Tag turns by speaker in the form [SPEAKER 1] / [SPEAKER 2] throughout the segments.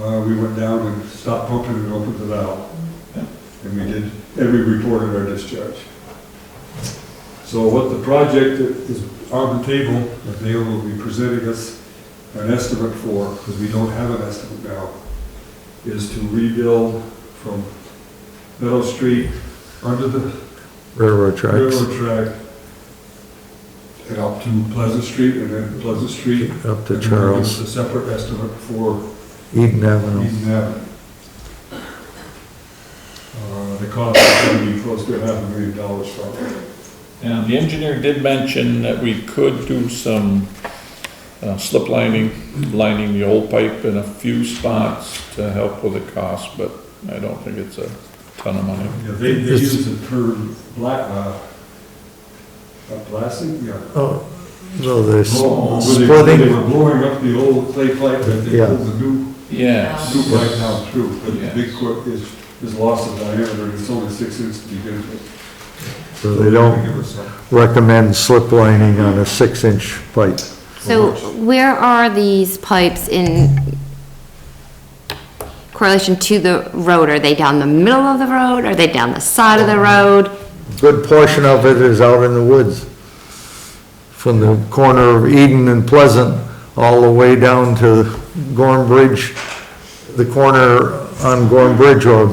[SPEAKER 1] uh, we went down and stopped pumping and opened the valve. And we did, and we reported our discharge. So what the project that is on the table, that they will be presenting us an estimate for, because we don't have an estimate now, is to rebuild from Meadow Street under the
[SPEAKER 2] railroad tracks
[SPEAKER 1] railroad track and up to Pleasant Street and then Pleasant Street.
[SPEAKER 2] up to
[SPEAKER 1] And then give us
[SPEAKER 2] Charles,
[SPEAKER 1] A separate estimate for
[SPEAKER 2] Eden Avenue.
[SPEAKER 1] Eden Avenue. Uh, The cost is going to be close to half a million dollars probably.
[SPEAKER 3] Now, the engineer did mention that we could do some uh, slip lining, lining the old pipe in a few spots to help with the cost, but I don't think it's a ton of money.
[SPEAKER 1] Yeah, They, they
[SPEAKER 2] It's-
[SPEAKER 1] use the term black, uh, uh, blasting, yeah.
[SPEAKER 2] Oh, no, there's
[SPEAKER 1] Oh, where they- They
[SPEAKER 2] splitting,
[SPEAKER 1] were blowing up the old clay pipe that they
[SPEAKER 2] Yeah.
[SPEAKER 1] pulled the new,
[SPEAKER 3] Yes.
[SPEAKER 1] new pipe down through. But the
[SPEAKER 3] Yes.
[SPEAKER 1] big quip is, is loss of diameter, and it's only six inches to begin with.
[SPEAKER 2] so they don't
[SPEAKER 1] Give us some.
[SPEAKER 2] recommend slip lining on a six-inch pipe.
[SPEAKER 4] So where are these pipes in correlation to the road? Are they down the middle of the road? Are they down the side of the road?
[SPEAKER 2] Good portion of it is out in the woods, from the corner of Eden and Pleasant, all the way down to Gorm Bridge. The corner on Gorm Bridge Road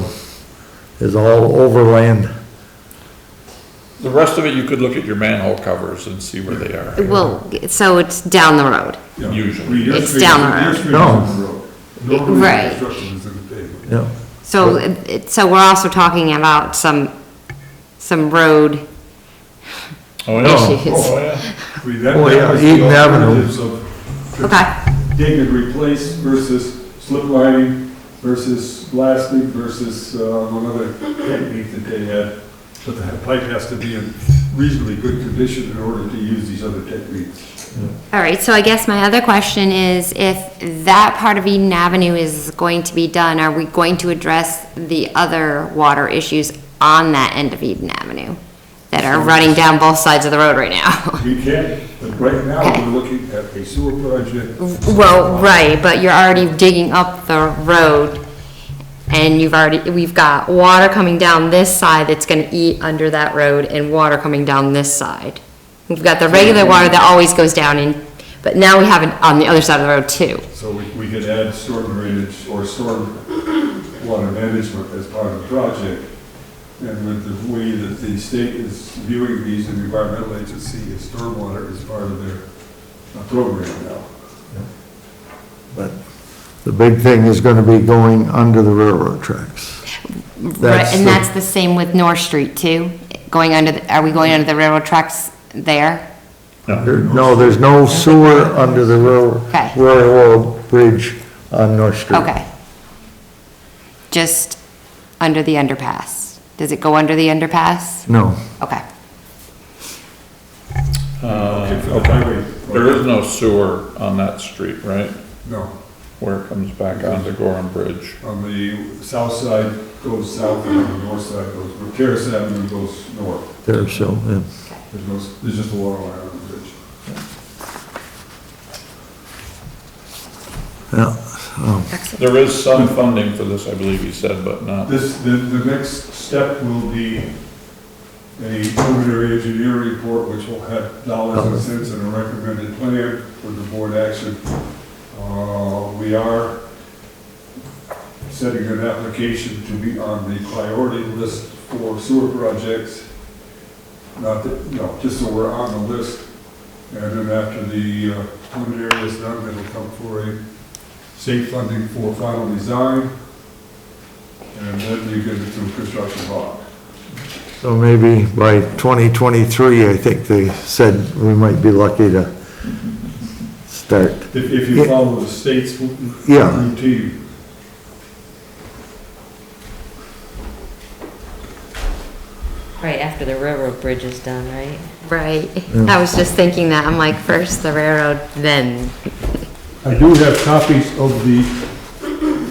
[SPEAKER 2] is all overland.
[SPEAKER 3] The rest of it, you could look at your manhole covers and see where they are.
[SPEAKER 4] Well, so it's down the road.
[SPEAKER 1] Yeah.
[SPEAKER 3] Usually.
[SPEAKER 1] Your
[SPEAKER 4] It's
[SPEAKER 1] street-
[SPEAKER 4] down the
[SPEAKER 1] your
[SPEAKER 4] road.
[SPEAKER 1] street
[SPEAKER 2] No.
[SPEAKER 1] is on the road. Normally,
[SPEAKER 4] Right.
[SPEAKER 1] the construction is in the pavement.
[SPEAKER 2] Yeah,
[SPEAKER 4] So, it- so we're also talking about some, some road,
[SPEAKER 3] Oh,
[SPEAKER 4] Yes,
[SPEAKER 3] yeah.
[SPEAKER 4] it is.
[SPEAKER 3] Oh, yeah.
[SPEAKER 1] I mean, that-
[SPEAKER 2] Oh,
[SPEAKER 1] that
[SPEAKER 2] yeah,
[SPEAKER 1] was the
[SPEAKER 2] Eaton Avenue.
[SPEAKER 1] alternatives of
[SPEAKER 4] okay,
[SPEAKER 1] Dig and replace versus slip lining versus blasting versus, uh, another technique that they had. But the pipe has to be in reasonably good condition in order to use these other techniques.
[SPEAKER 4] all right, so I guess my other question is, if that part of Eden Avenue is going to be done, are we going to address the other water issues on that end of Eden Avenue that are running down both sides of the road right now?
[SPEAKER 1] We can't, but right now, we're looking at a sewer project.
[SPEAKER 4] Well, right, but you're already digging up the road, and you've already, we've got water coming down this side that's gonna eat under that road, and water coming down this side. We've got the regular water that always goes down in, but now we have it on the other side of the road too.
[SPEAKER 1] So we, we could add storm drainage or storm water management as part of the project. And with the way that the state is viewing these and the environmental agency, is stormwater is part of their uh, program now.
[SPEAKER 2] but the big thing is gonna be going under the railroad tracks.
[SPEAKER 4] Right,
[SPEAKER 2] That's
[SPEAKER 4] and
[SPEAKER 2] the-
[SPEAKER 4] that's the same with North Street too, going under, the- are we going under the railroad tracks there?
[SPEAKER 2] There- No, there's no sewer under the rail-
[SPEAKER 4] Okay.
[SPEAKER 2] railroad bridge on North Street.
[SPEAKER 4] Okay. Just under the underpass. Does it go under the underpass?
[SPEAKER 2] No.
[SPEAKER 4] Okay.
[SPEAKER 3] Uh,
[SPEAKER 1] For the highway.
[SPEAKER 3] There is no sewer on that street, right?
[SPEAKER 1] No,
[SPEAKER 3] Where it comes back onto Gorham Bridge.
[SPEAKER 1] on the south side goes south and on the north side goes, Terrace Avenue goes north.
[SPEAKER 2] There, so, yeah.
[SPEAKER 1] There's no, there's just a water line on the bridge.
[SPEAKER 2] yeah.
[SPEAKER 3] There is some funding for this, I believe he said, but not.
[SPEAKER 1] This, the, the next step will be a preliminary engineer report, which will have dollars and cents and a recommended plan for the board action. Uh, we are setting an application to be on the priority list for sewer projects. Not that, no, just so we're on the list. And then after the uh, preliminary is done, it'll come for a state funding for final design. And then you get into construction bond.
[SPEAKER 2] So maybe by 2023, I think they said we might be lucky to start.
[SPEAKER 1] If, if you
[SPEAKER 2] Yeah.
[SPEAKER 1] follow the state's
[SPEAKER 2] Yeah.
[SPEAKER 1] routine.
[SPEAKER 5] Right after the railroad bridge is done, right?
[SPEAKER 4] Right, I was just thinking that, I'm like, first the railroad, then.
[SPEAKER 1] I do have copies of the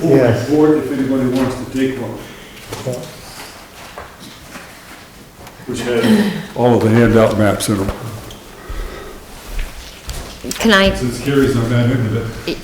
[SPEAKER 2] Yes.
[SPEAKER 1] board if anybody wants to take one. Which has all of the handout maps in them,
[SPEAKER 4] Can I
[SPEAKER 1] since Carrie's on that end of it.